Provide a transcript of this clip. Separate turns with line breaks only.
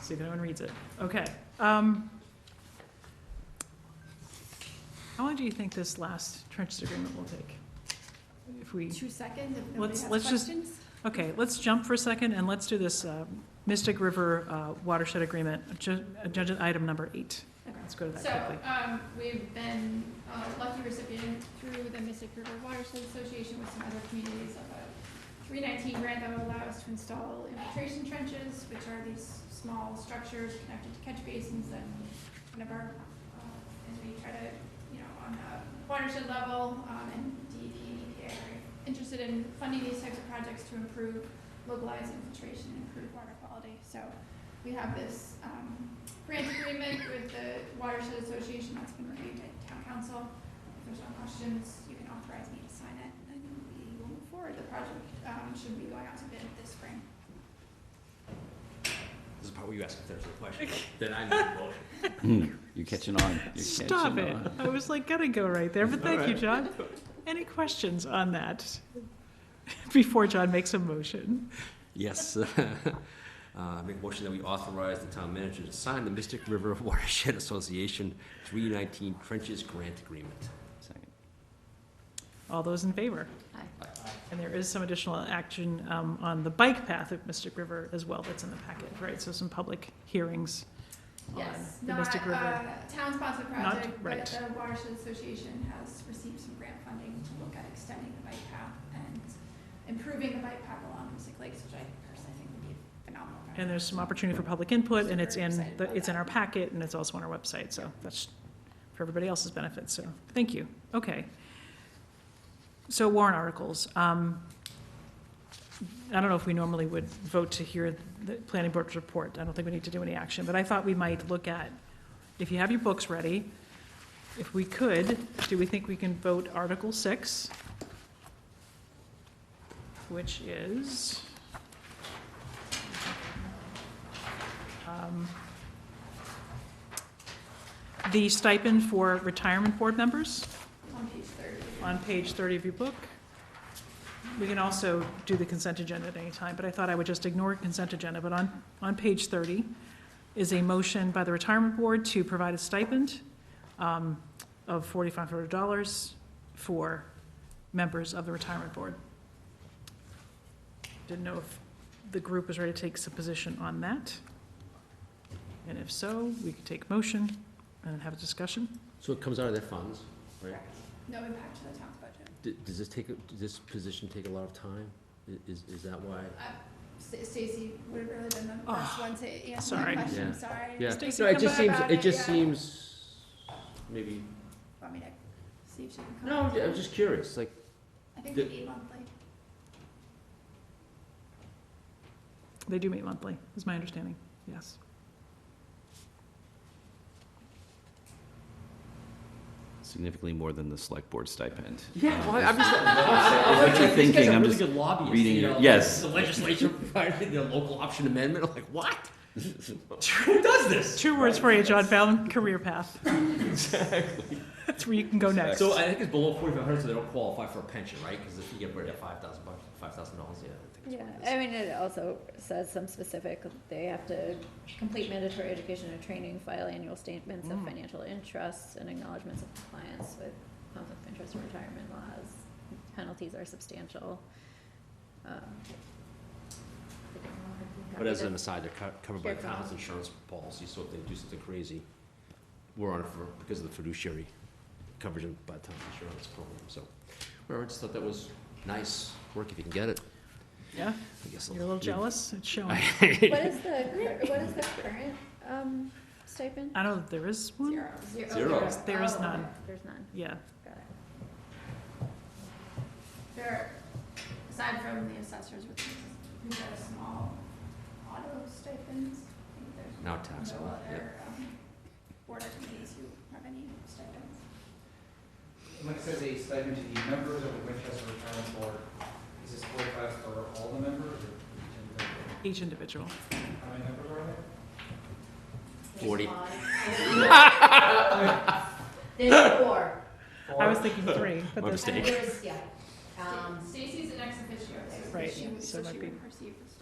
see if anyone reads it. Okay. um, How long do you think this last trench agreement will take? If we,
Two seconds, if nobody
Let's-
has
let's just-
questions?
okay, let's jump for a second and let's do this uh, Mystic River uh, Watershed Agreement, ag- agenda item number eight.
Okay.
Let's go to that
So,
quickly.
um, we've been uh, lucky recipient through the Mystic River Watershed Association with some other communities of a three nineteen grant that will allow us to install infiltration trenches, which are these small structures connected to catch basins that kind of are, uh, as we try to, you know, on a watershed level, um, and DEP, EPA are interested in funding these types of projects to improve localized infiltration and improve water quality. So, we have this, um, grant agreement with the Watershed Association that's been reviewed by town council. If there's no questions, you can authorize me to sign it, and we will move forward. The project um, should be going out to bid this spring.
This is probably you ask if there's a question, then I make a motion.
Hmm. You're catching on. You're
Stop
catching
it.
on.
I was like, gotta go right there, but thank you, John. Any questions on that before John makes a motion?
Yes. Uh, I make a motion that we authorize the town manager to sign the Mystic River Watershed Association three nineteen trenches grant agreement.
Second.
All those in favor?
Aye.
And there is some additional action um, on the bike path at Mystic River as well that's in the packet, right? So some public hearings on
Yes,
the
not
Mystic River.
a town-sponsored project, but
right.
the Watershed Association has received some grant funding to look at extending the bike path and improving the bike path along Mystic Lakes, which I personally think would be a phenomenal project.
And there's some opportunity for public input, and it's
Super
in,
excited
the-
about
it's in
that.
our packet, and it's also on our website, so that's for everybody else's benefit, so, thank you. Okay. So warrant articles. Um, I don't know if we normally would vote to hear the planning board's report. I don't think we need to do any action, but I thought we might look at, if you have your books ready, if we could, do we think we can vote Article Six? Which is? um, The stipend for retirement board members
On page thirty.
on page 30 of your book. We can also do the consent agenda at any time, but I thought I would just ignore consent agenda. But on, on page 30 is a motion by the retirement board to provide a stipend um, of $4,500 for members of the retirement board. Didn't know if the group was ready to take some position on that. And if so, we could take motion and have a discussion.
So it comes out of their funds, right?
Correct. No impact to the town's budget.
D- Does this take, a- does this position take a lot of time? I- Is, is that why?
Uh, Sta- Stacy would have really been the
Oh,
best one to answer
sorry.
that question,
Yeah.
I'm sorry.
Yeah,
Stacy,
no, it
come
just
back
seems,
about
it
it, yeah.
just seems, maybe,
Want me to see if she can come?
no, I'm just curious, like,
I think
the-
we need monthly.
They do meet monthly, is my understanding, yes.
Significantly more than the select board stipend.
Yeah,
Um,
well, I'm just. I'm
what you're
these guys
thinking,
are
I'm
really
just
good lobbyists,
reading
you
it.
know,
Yes.
The legislature provided the local option amendment. I'm like, what? Who does this?
Two words for you, John Fallon, career path. That's where you can go next.
So I think it's below 4,500, so they don't qualify for a pension, right? Because if you get rid of 5,000 bucks, 5,000 dollars, yeah, I think it's
Yeah,
what it is.
I mean, it also says some specific, they have to complete mandatory education and training, file annual statements of
Mm.
financial interests and acknowledgements of compliance with conflict of interest and retirement laws. Penalties are substantial. Um, I don't know if you
But as
copied
an
it.
aside, they're co- covered by
Sure.
town's insurance policy, so if they do something crazy, we're on it for, because of the fiduciary coverage of- by town's insurance program, so. Whatever, I just thought that was nice work if you can get it.
Yeah,
I guess I'll-
you're a little jealous, it's showing.
What is the, cur- what is the current, um, stipend?
I don't know if there is one,
Zero. Zero.
Zero.
There
There's-
is-
there is
oh,
none.
There's none,
yeah.
got it.
There, aside from the assessors, which is, who got a small auto stipends, I
Now
think there's no
taxable, yeah.
other, um, board or committees who have any stipends.
Mike says a stipend to the members of the Winchester Retirement Board. Is this forty-five for all the members or each
Each
individual?
individual.
How many members are there?
Forty.
There's four.
I was thinking three, but
My
there's,
mistake.
There's, yeah. Um,
Stacy's an ex officio, so
Right,
she
yeah,
would,
so it
so she
might be-
would receive this.